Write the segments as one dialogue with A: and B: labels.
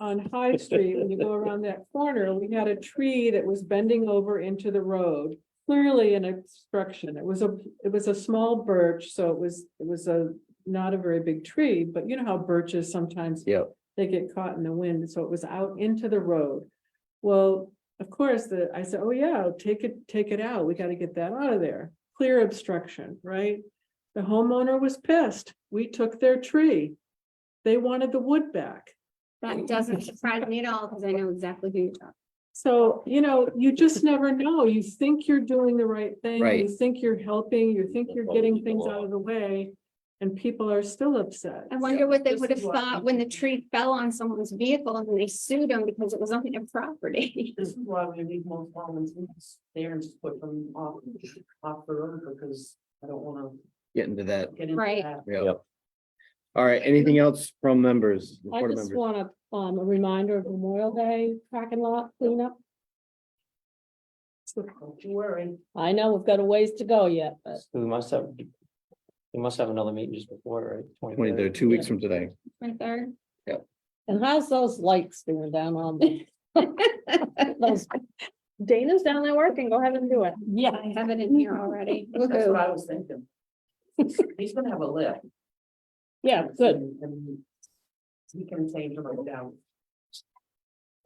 A: on High Street, when you go around that corner, we had a tree that was bending over into the road. Clearly an obstruction. It was a, it was a small birch, so it was, it was a, not a very big tree, but you know how birches sometimes
B: Yep.
A: they get caught in the wind, so it was out into the road. Well, of course, the, I said, oh yeah, take it, take it out, we gotta get that out of there, clear obstruction, right? The homeowner was pissed, we took their tree, they wanted the wood back.
C: That doesn't surprise me at all, because I know exactly who you're talking.
A: So, you know, you just never know. You think you're doing the right thing.
B: Right.
A: You think you're helping, you think you're getting things out of the way. And people are still upset.
C: I wonder what they
A: This
C: would have
A: is why-
C: thought when the tree fell on someone's vehicle and they sued them because it was on their property.
D: This is why we leave most commons there and just put them off, off the road because I don't wanna
B: Get into that.
D: get into
C: Right.
D: that.
B: Yeah. All right, anything else from members?
E: I
B: board
E: just
B: members?
E: want a, um, a reminder of Memorial Day parking lot cleanup.
D: Don't you worry.
E: I know we've got a ways to go yet, but
F: We must have. We must have another meeting just before, right?
B: Twenty, they're two weeks from today.
C: My third,
E: and how's those lights doing down on the? Those- Dana's down there working. Go ahead and do it. Yeah.
C: I have it in here already.
D: That's what
C: Woohoo.
D: I was thinking. He's gonna have a lift.
E: Yeah, good.
D: And- and He can change them down.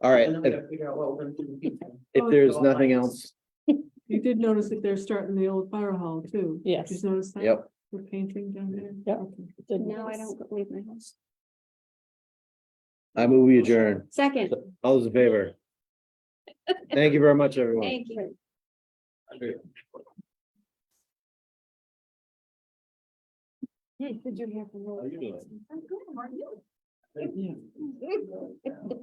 B: All right,
D: And then we
B: if
D: gotta figure out what we're gonna do. in the future.
B: if there's
D: Go
B: nothing
D: on.
B: else,
A: You did notice that they're starting the old fire hall too.
E: Yes.
A: Did you notice that?
B: Yep.
A: We're painting down there.
E: Yep.
A: Okay.
C: No, I don't leave my house.
B: I move we adjourn.
C: Second,
B: All those in favor? Thank you very much, everyone.
C: thank you.
E: Did you hear from?
B: How you doing?
C: I'm good, how are you?
A: Yeah.